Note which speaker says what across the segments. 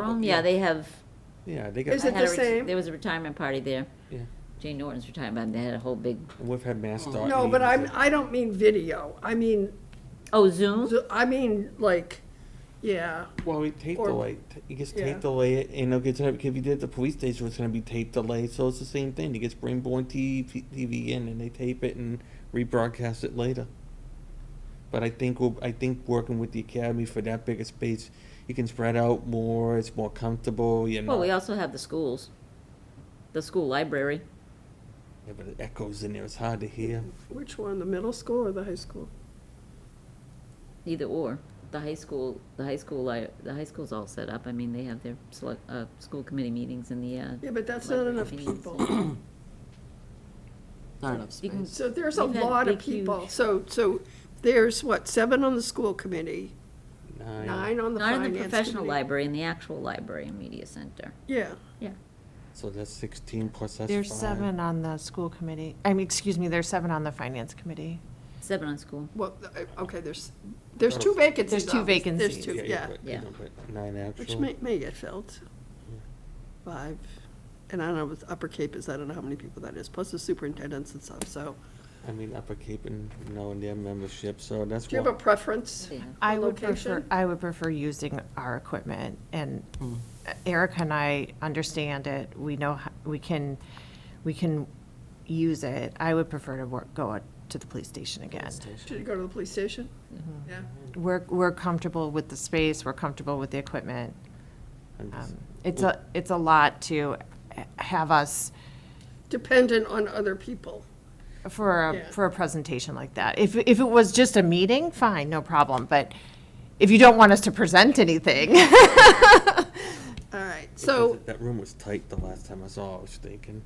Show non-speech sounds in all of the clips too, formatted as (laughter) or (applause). Speaker 1: Room, yeah, they have.
Speaker 2: Yeah, they
Speaker 3: Is
Speaker 1: I had
Speaker 2: got,
Speaker 3: it the
Speaker 1: a ret-
Speaker 3: same?
Speaker 1: There was a retirement party there.
Speaker 2: yeah,
Speaker 1: Jane Norton's retirement, party. they had a whole big,
Speaker 2: and we've had Mass Dot.
Speaker 3: No, but
Speaker 2: meetings
Speaker 3: I'm, I don't mean video, I mean,
Speaker 1: oh, Zoom?
Speaker 3: zo- I mean, like, yeah,
Speaker 2: that- Well, we tape
Speaker 3: or-
Speaker 2: delay, T- he gets
Speaker 3: yeah.
Speaker 2: tape delay it, and they'll get to, if you did at the police station, it's gonna be tape delay, so it's the same thing, he gets Brainborn TV, TV in, and they tape it and rebroadcast it later. But I think, we'll I think working with the academy for that bigger space, you can spread out more, it's more comfortable, you know.
Speaker 1: Well, we also have the schools, the school library.
Speaker 2: Yeah, but it echoes in there, it's hard to hear.
Speaker 3: which one, the middle school or the high school?
Speaker 1: Either or. The high school, the high school, li- the high school's all set up. I mean, they have their select, uh, school committee meetings in the, uh.
Speaker 3: Yeah, but that's not
Speaker 1: library
Speaker 3: enough
Speaker 1: meetings.
Speaker 3: people,
Speaker 4: Not enough
Speaker 1: You can-
Speaker 4: space.
Speaker 3: so there's a
Speaker 1: We've had
Speaker 3: lot of
Speaker 1: big, huge-
Speaker 3: people, so, so there's what, seven on the school committee,
Speaker 2: Nine.
Speaker 3: nine on the
Speaker 1: Not
Speaker 3: finance
Speaker 1: in
Speaker 3: committee?
Speaker 1: the professional library, in the actual library and media center.
Speaker 3: Yeah,
Speaker 1: Yeah.
Speaker 2: So that's sixteen plus that's five.
Speaker 5: There's seven on the school committee, I mean, excuse me, there's seven on the finance committee.
Speaker 1: Seven on school.
Speaker 3: well, uh, okay, there's, there's two vacancies.
Speaker 5: There's two
Speaker 3: obviously.
Speaker 5: vacancies.
Speaker 3: There's two, yeah,
Speaker 2: but,
Speaker 1: Yeah.
Speaker 2: you know, but Nine
Speaker 3: which
Speaker 2: actual.
Speaker 3: may, may get filled, five, and I don't know, with Upper Cape is, I don't know how many people that is, plus the superintendents and stuff, so,
Speaker 2: I mean, upper Cape and knowing their membership, so that's
Speaker 3: do you have a
Speaker 2: why.
Speaker 3: preference?
Speaker 1: Yeah.
Speaker 5: I would prefer,
Speaker 3: Location?
Speaker 5: I would prefer using our equipment, and
Speaker 1: Mm.
Speaker 5: Erica and I understand it, we know, how- we can, we can use it. I would prefer to work, go out to the police station again.
Speaker 3: Should you go to the police station?
Speaker 5: Mm-hmm.
Speaker 3: Yeah.
Speaker 5: We're, we're comfortable with the space, we're comfortable with the equipment.
Speaker 2: I'm just-
Speaker 5: Um, It's a, it's a lot to h- have us
Speaker 3: Dependent on other people.
Speaker 5: for
Speaker 3: Yeah.
Speaker 5: a, for a presentation like that. If, if it was just a meeting, fine, no problem, but if you don't want us to present anything, (laughs)
Speaker 3: All right,
Speaker 2: because
Speaker 3: so,
Speaker 2: That room was tight the last time I saw, it, I was thinking.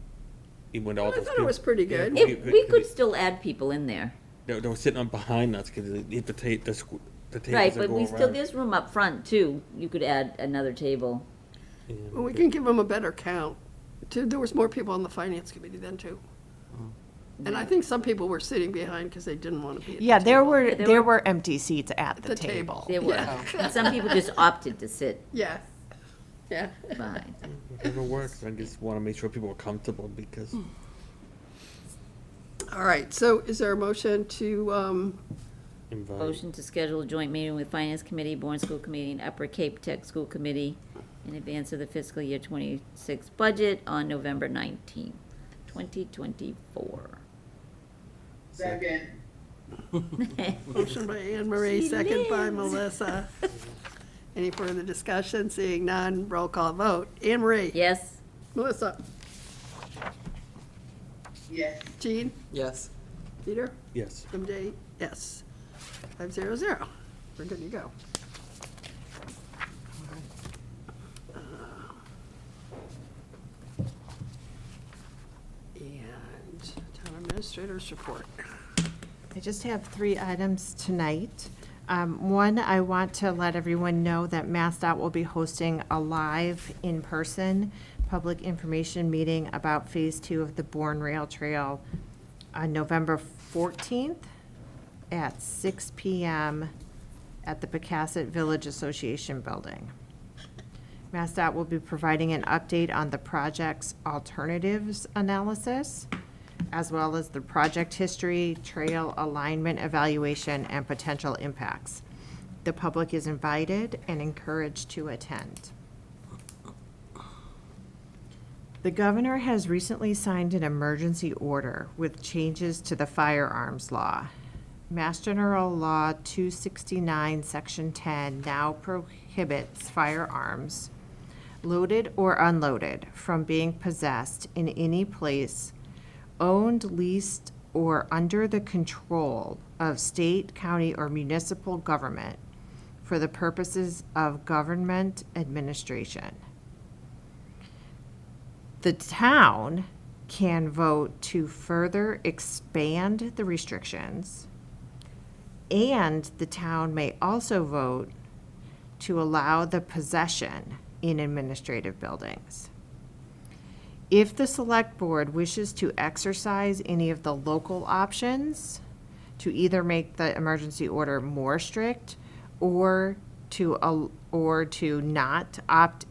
Speaker 2: Even with all
Speaker 3: I
Speaker 2: those
Speaker 3: thought it
Speaker 2: people.
Speaker 3: was pretty good.
Speaker 2: Yeah.
Speaker 1: If, we could still add people in there.
Speaker 2: They, they were sitting on behind us, cause they- if the tape, the squ- the tables.
Speaker 1: Right,
Speaker 2: that
Speaker 1: but
Speaker 2: go
Speaker 1: we still,
Speaker 2: around.
Speaker 1: there's room up front too. You could add another table.
Speaker 2: Yeah.
Speaker 3: Well, we can give them a better count. Too, there was more people on the finance committee then, too. And I think some people were sitting behind because they didn't want to be at the
Speaker 5: yeah, there
Speaker 3: table.
Speaker 5: (laughs) were,
Speaker 1: there
Speaker 5: there were empty seats at
Speaker 3: The
Speaker 5: the
Speaker 3: table.
Speaker 5: table.
Speaker 1: There were.
Speaker 3: Yeah.
Speaker 1: And some people just opted to sit
Speaker 3: Yeah, yeah.
Speaker 1: behind.
Speaker 2: Whatever works, I just wanna make sure people are comfortable,
Speaker 3: Hmm.
Speaker 2: because
Speaker 3: All right, so is there a motion to, um,
Speaker 2: invite,
Speaker 1: Motion to schedule a joint meeting with Finance Committee, Bourne School Committee, and Upper Cape Tech School Committee in advance of the fiscal year twenty-six budget on November nineteenth, twenty twenty-four.
Speaker 6: Second.
Speaker 3: motion by Anne Marie,
Speaker 1: She
Speaker 3: second by
Speaker 1: lives.
Speaker 5: (laughs)
Speaker 3: Melissa? Any further discussion? Seeing none, roll call vote. Anne Marie?
Speaker 1: (laughs) Yes,
Speaker 3: Melissa?
Speaker 6: Yes.
Speaker 3: Jean?
Speaker 4: Yes.
Speaker 3: Peter?
Speaker 2: yes.
Speaker 3: MJ, yes. Five zero zero. We're good to go. Uh, And town administrators report.
Speaker 5: I just have three items tonight. Um, One, I want to let everyone know that MassDOT will be hosting a live, in-person, public information meeting about Phase Two of the Bourne Rail Trail on November 14th at 6 PM at the Pecasset Village Association Building. MassDOT will be providing an update on the project's alternatives analysis, as well as the project history, trail alignment evaluation, and potential impacts. The public is invited and encouraged to attend. The governor has recently signed an emergency order with changes to the firearms law. Mass General Law 269, Section 10 now prohibits firearms, loaded or unloaded, from being possessed in any place owned, leased, or under the control of state, county, or municipal government for the purposes of government administration the town can vote to further expand the restrictions. And the town may also vote to allow the possession in administrative buildings. If the select board wishes to exercise any of the local options to either make the emergency order more strict or to, al- or to not opt